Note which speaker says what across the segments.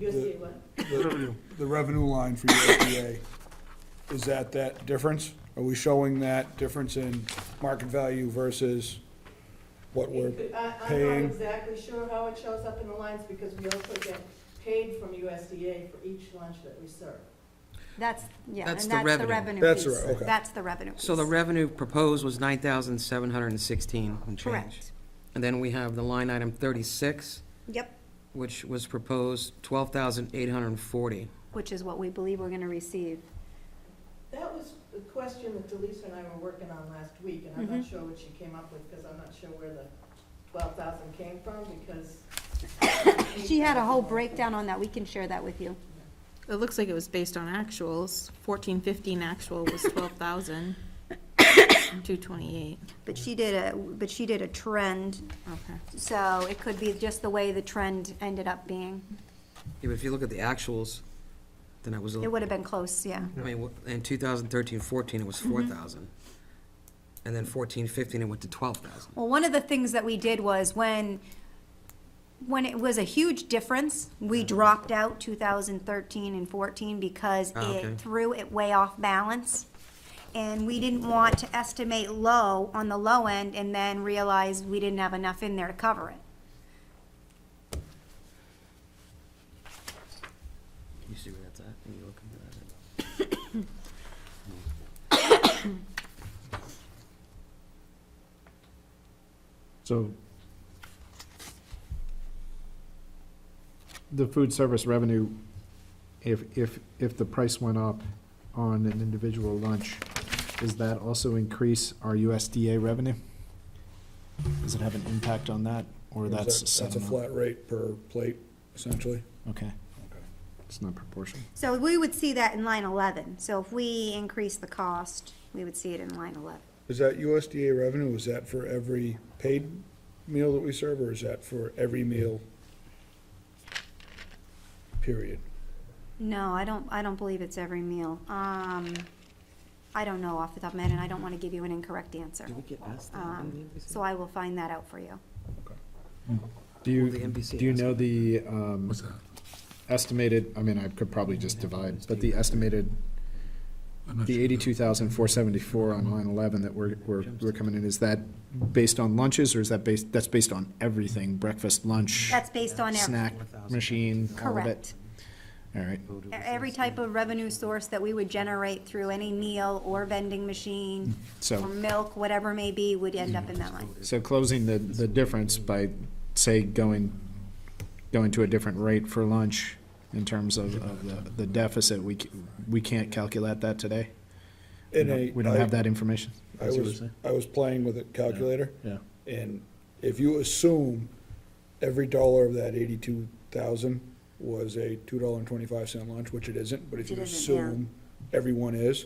Speaker 1: USDA what?
Speaker 2: the, the revenue line for USDA, is that that difference? Are we showing that difference in market value versus what we're,
Speaker 1: It could- I- I'm
Speaker 2: paying.
Speaker 1: not exactly sure how it shows up in the lines because we also get paid from USDA for each lunch that we serve.
Speaker 3: That's, yeah, and that's
Speaker 4: That's the
Speaker 3: the
Speaker 4: revenue.
Speaker 3: revenue
Speaker 2: That's the
Speaker 3: piece.
Speaker 2: re- okay.
Speaker 3: That's the revenue
Speaker 4: So the
Speaker 3: piece.
Speaker 4: revenue proposed was nine thousand seven hundred and sixteen and change.
Speaker 3: Correct.
Speaker 4: And then we have the line item thirty-six,
Speaker 3: Yep,
Speaker 4: which was proposed twelve thousand eight hundred and forty.
Speaker 3: which is what we believe we're going to receive.
Speaker 1: That was a question that Delisa and I were working on last week, and I'm not
Speaker 3: Mm-hmm.
Speaker 1: sure what she came up with because I'm not sure where the twelve thousand came from because.
Speaker 3: She had a whole breakdown on that. We can share that with you.
Speaker 5: It looks like it was based on actuals. Fourteen fifteen actual was twelve thousand. Two twenty-eight,
Speaker 3: But she did a, but she did a trend,
Speaker 5: okay.
Speaker 3: so it could be just the way the trend ended up being.
Speaker 4: If if you look at the actuals, then it was, a-
Speaker 3: It would have been close, yeah.
Speaker 4: I mean, wh- in 2013-14 it was four
Speaker 3: Mm-hmm.
Speaker 4: thousand. And then 14-15 it went to twelve thousand.
Speaker 3: Well, one of the things that we did was when, when it was a huge difference,
Speaker 4: Mm-hmm.
Speaker 3: we dropped out two thousand thirteen and fourteen because
Speaker 4: Ah, okay.
Speaker 3: it threw it way off balance. And we didn't want to estimate low on the low end and then realize we didn't have enough in there to cover it.
Speaker 4: You see where that's at, and you look into that.
Speaker 6: So the food service revenue, if, if, if the price went up on an individual lunch, does that also increase our USDA revenue? Does it have an impact on that, or
Speaker 2: is that-
Speaker 6: that's
Speaker 2: that's a
Speaker 6: settlement?
Speaker 2: flat rate per plate, essentially?
Speaker 6: Okay,
Speaker 2: Okay.
Speaker 6: it's not proportional.
Speaker 3: So we would see that in line eleven. So if we increase the cost, we would see it in line eleven.
Speaker 2: Is that USDA revenue, is that for every paid meal that we serve, or is that for every meal? Period.
Speaker 3: No, I don't, I don't believe it's every meal. Um, I don't know off the top of my head, and I don't want to give you an incorrect answer.
Speaker 4: Did we get asked that on the
Speaker 3: Um,
Speaker 4: NBC?
Speaker 3: so I will find that out for you.
Speaker 6: Do
Speaker 4: Well, the
Speaker 6: you,
Speaker 4: NBC
Speaker 6: do you
Speaker 4: has
Speaker 6: know the um,
Speaker 7: What's that?
Speaker 6: estimated, I mean, I could probably just divide, but the estimated
Speaker 7: I'm not
Speaker 6: The
Speaker 7: sure. Mm-hmm.
Speaker 6: eighty-two thousand, four seventy-four on line eleven that we're, we're, we're coming in, is that based on lunches, or is that based, that's based on everything, breakfast, lunch,
Speaker 3: That's based on every,
Speaker 6: snack, machine, all of
Speaker 3: correct.
Speaker 6: it? All right,
Speaker 3: E- Every type of revenue source that we would generate through any meal or vending machine, or
Speaker 6: so,
Speaker 3: milk, whatever may be, would end up in that line.
Speaker 6: so closing the, the difference by, say, going, going to a different rate for lunch in terms of, of the, the deficit, we, c- we can't calculate that today? We
Speaker 2: In a-
Speaker 6: don't- We don't have that information?
Speaker 2: I was, I was playing with a calculator.
Speaker 6: Yeah.
Speaker 2: And if you assume every dollar of that eighty-two thousand was a two dollar and twenty-five cent lunch, which it isn't, but if
Speaker 3: It
Speaker 2: you
Speaker 3: isn't, yeah.
Speaker 2: assume everyone is,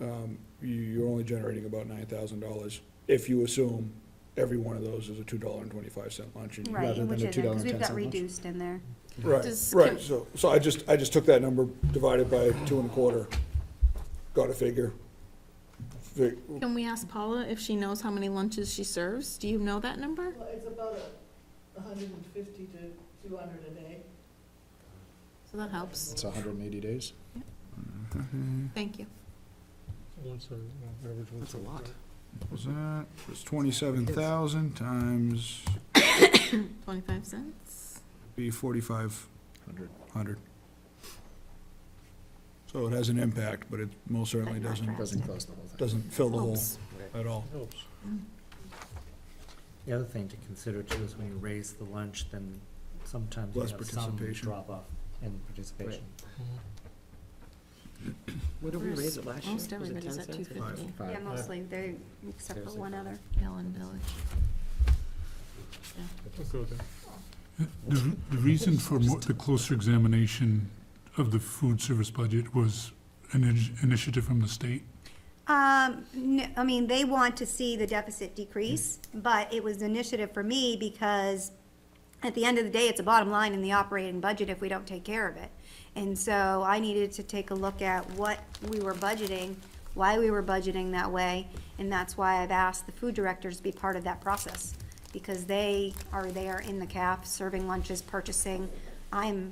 Speaker 2: um, you, you're only generating about nine thousand dollars if you assume every one of those is a two dollar and twenty-five cent lunch. and you-
Speaker 3: Right,
Speaker 6: Rather
Speaker 3: which
Speaker 6: than the
Speaker 3: isn't, because we've
Speaker 6: $2.10
Speaker 3: got
Speaker 6: lunch.
Speaker 3: reduced in there.
Speaker 2: Right,
Speaker 5: Does-
Speaker 2: right, so, so I just, I just took that number, divided by two and a quarter, got a figure. Fi-
Speaker 5: Can we ask Paula if she knows how many lunches she serves? Do you know that number?
Speaker 1: Well, it's about a hundred and fifty to two hundred a day.
Speaker 5: So that helps.
Speaker 6: It's hundred and eighty days?
Speaker 5: Thank you.
Speaker 4: That's a lot.
Speaker 2: Was that, was twenty-seven thousand times
Speaker 5: Twenty-five cents?
Speaker 2: be forty-five
Speaker 6: Hundred.
Speaker 2: hundred. So it has an impact, but it most certainly
Speaker 3: But not
Speaker 2: doesn't,
Speaker 3: drastic.
Speaker 6: Doesn't close the whole thing.
Speaker 2: doesn't fill the hole
Speaker 5: Helps.
Speaker 2: at all.
Speaker 8: The other thing to consider too is when you raise the lunch, then sometimes you
Speaker 2: Less
Speaker 8: have some
Speaker 2: participation.
Speaker 8: drop off in participation.
Speaker 4: What did we raise it last year?
Speaker 5: Most
Speaker 4: Was it
Speaker 5: everybody's
Speaker 4: 10
Speaker 5: at two
Speaker 4: cents?
Speaker 5: fifty.
Speaker 3: Yeah, mostly, they, except for
Speaker 8: Seriously.
Speaker 3: one other.
Speaker 5: Ellen Village.
Speaker 7: The, r- the reason for mo- the closer examination of the food service budget was an initi- initiative from the state.
Speaker 3: Um, n- I mean, they want to see the deficit decrease, but it was an initiative for me because at the end of the day, it's a bottom line in the operating budget if we don't take care of it. And so I needed to take a look at what we were budgeting, why we were budgeting that way, and that's why I've asked the food directors to be part of that process. Because they are there in the CAF, serving lunches, purchasing. I'm